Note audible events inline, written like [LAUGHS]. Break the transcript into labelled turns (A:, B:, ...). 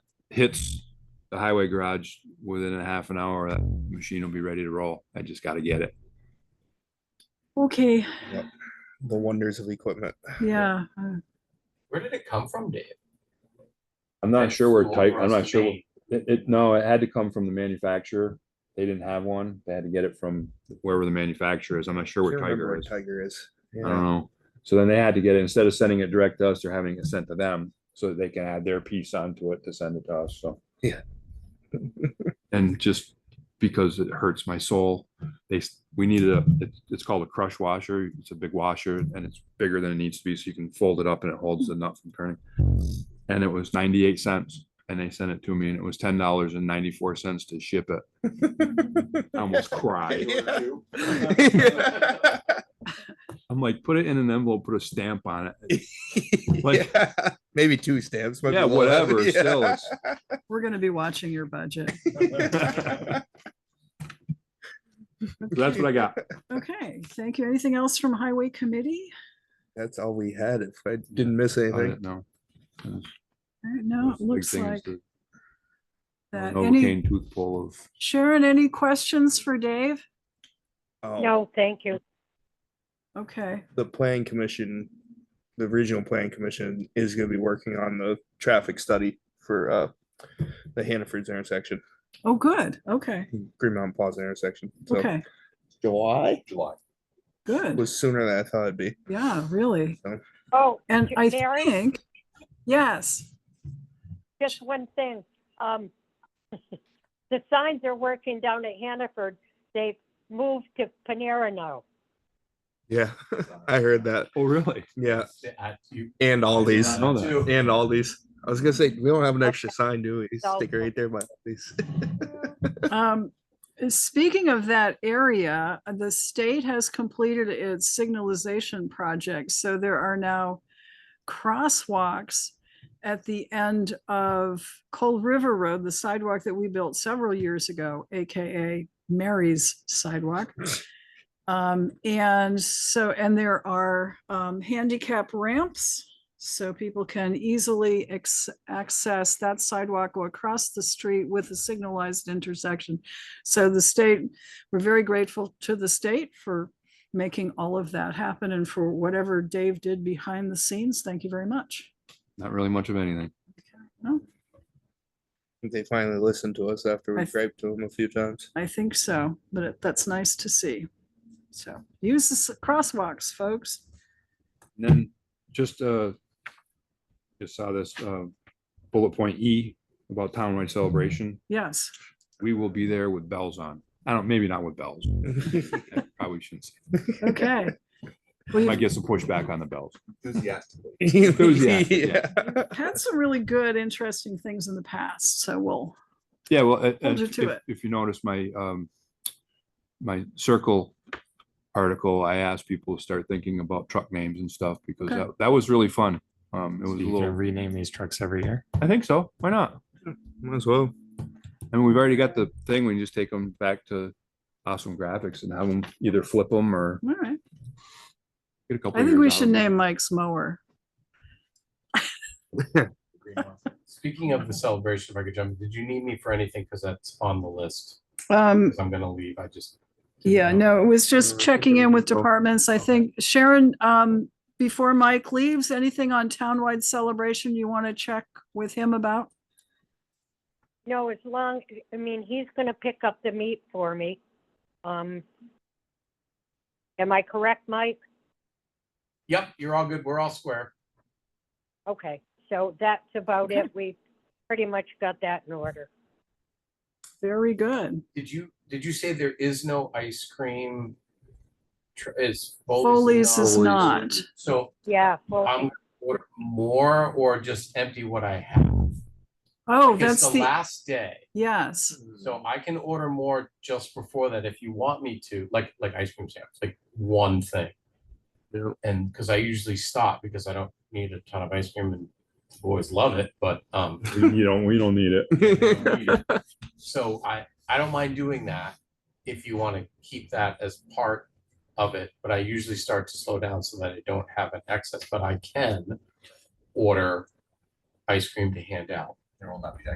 A: hits the highway garage within a half an hour, that machine will be ready to roll. I just gotta get it.
B: Okay,
C: the wonders of equipment. [SIGHS]
B: yeah, uh,
D: Where did it come from, Dave?
A: I'm not sure where
D: It's
A: type, I'm
D: Dolores
A: not sure,
D: Maine.
A: what- it, it, no, it had to come from the manufacturer. They didn't have one. They had to get it from wherever the manufacturer is. I'm not sure
C: Can't
A: where
C: remember
A: Tiger
C: where
A: is.
C: Tiger is.
A: I
C: Yeah.
A: don't know. So then they had to get it, instead of sending it direct to us, they're having it sent to them so that they can add their piece onto it to send it to us, so.
C: Yeah.
A: [LAUGHS] And just because it hurts my soul, they, s- we needed a, it's, it's called a crush washer. It's a big washer and it's bigger than it needs to be, so you can fold it up and it holds the nut from turning. And it was ninety-eight cents and they sent it to me and it was ten dollars and ninety-four cents to ship it.
C: [LAUGHS]
A: I [LAUGHS] almost cried.
B: [LAUGHS]
C: Yeah.
A: I'm like, put it in an envelope, put a stamp on it. [LAUGHS] Like-
C: Yeah. Maybe two stamps. might be
A: Yeah,
C: a little
A: whatever,
C: [LAUGHS] heavy.
A: still, it's-
B: we're gonna be watching your budget.
A: So That's what I got.
B: Okay, thank you. Anything else from Highway Committee?
C: [LAUGHS] That's all we had. If I didn't miss anything.
A: No.
B: All right, No,
A: Those
B: it
A: big
B: looks
A: things
B: like
A: that-
B: that. Any,
A: Novocaine tooth pull of,
B: Sharon, any questions for Dave?
C: Um,
E: No, thank you.
B: Okay,
C: The plan commission, the regional plan commission is gonna be working on the traffic study for, uh, the Hannaford's intersection,
B: oh, good, okay,
C: Green Mountain Plaza intersection. So
B: okay,
C: July
D: July.
B: good,
C: was sooner than I thought it'd be.
B: yeah, really.
E: Oh,
B: And
E: J-
B: I
E: Mary?
B: think, yes,
E: just one thing. Um, [LAUGHS] the signs are working down at Hannaford. They've moved to Panera now.
C: Yeah, [LAUGHS] I heard that.
A: oh, really?
C: Yeah,
D: I- you-
C: and all these.
A: know that.
D: Too.
C: And all these. I was gonna say, we don't have an extra sign, do we?
E: No.
C: Stick it right there by these. [LAUGHS]
B: Um, speaking of that area, the state has completed its signalization project, so there are now crosswalks at the end of Cold River Road, the sidewalk that we built several years ago, AKA Mary's sidewalk. Um, and so, and there are, um, handicap ramps, so people can easily ex- access that sidewalk or across the street with a signalized intersection. So the state, we're very grateful to the state for making all of that happen and for whatever Dave did behind the scenes. Thank you very much.
A: Not really much of anything.
B: No,
C: They finally listened to us after
B: I
C: we
B: th-
C: griped to them a few times. [LAUGHS]
B: I think so, but it- that's nice to see. So use the s- crosswalks, folks.
A: And then just, uh, just saw this, uh, bullet point E about townwide celebration.
B: Yes.
A: We will be there with bells on. I don't, maybe not with [LAUGHS] bells. I Probably shouldn't. say. [LAUGHS]
B: Okay. Well,
A: Might
B: you've
A: get some pushback on the bells.
D: Enthusiastically.
A: Enthusiastic,
C: Yeah.
B: had some really good, interesting things in the past, so we'll,
A: Yeah, well, uh, uh,
B: Hold you to
A: if,
B: it.
A: if you notice my, um, my circle article, I asked people to start thinking about truck names and stuff because
B: Okay.
A: that, that was really fun. Um, it
F: So
A: was a
F: you can
A: little,
F: rename these trucks every year.
A: I think so. Why not?
C: Might as well.
A: And we've already got the thing. We can just take them back to awesome graphics and have them either flip them or
B: all right.
A: get a couple.
B: I
A: of
B: think we
A: years out
B: should
A: of it.
B: name Mike's mower.
D: Speaking of the celebration, if I could jump, did you need me for anything? Because that's on the list.
B: Um,
A: Hmm.
D: 'Cause I'm gonna leave. I just. didn't
B: yeah,
D: know.
B: no, it was
D: Or
B: just
D: if
B: checking
D: there
B: in
D: was
B: with
D: a-
B: departments. I
D: okay.
B: think Sharon, um, before Mike leaves, anything on townwide celebration you want to check with him about?
E: No, as long, I mean, he's gonna pick up the meat for me. Um, am I correct, Mike?
D: Yep, you're all good. We're all square.
E: Okay, so that's about
B: Okay.
E: it. We pretty much got that in order.
B: Very good.
D: Did you, did you say there is no ice cream? tr- Is.
B: Foley's
D: uh,
B: is
A: Foley's.
B: not.
D: So
E: Yeah,
D: I'm
E: well,
D: gonna order more or just empty what I have.
B: Oh,
D: It's
B: that's
D: the
B: the,
D: last day.
B: yes.
D: So I can order more just before that if you want me to, like, like ice cream sandwich, like one thing.
C: Yep.
D: And, cause I usually stop because I don't need a ton of ice cream and the boys love it, but, um,
A: You don't, we don't need it.
D: I don't need it. so I, I don't mind doing that if you wanna keep that as part of it, but I usually start to slow down so that I don't have an excess, but I can order ice cream to hand out. There will not be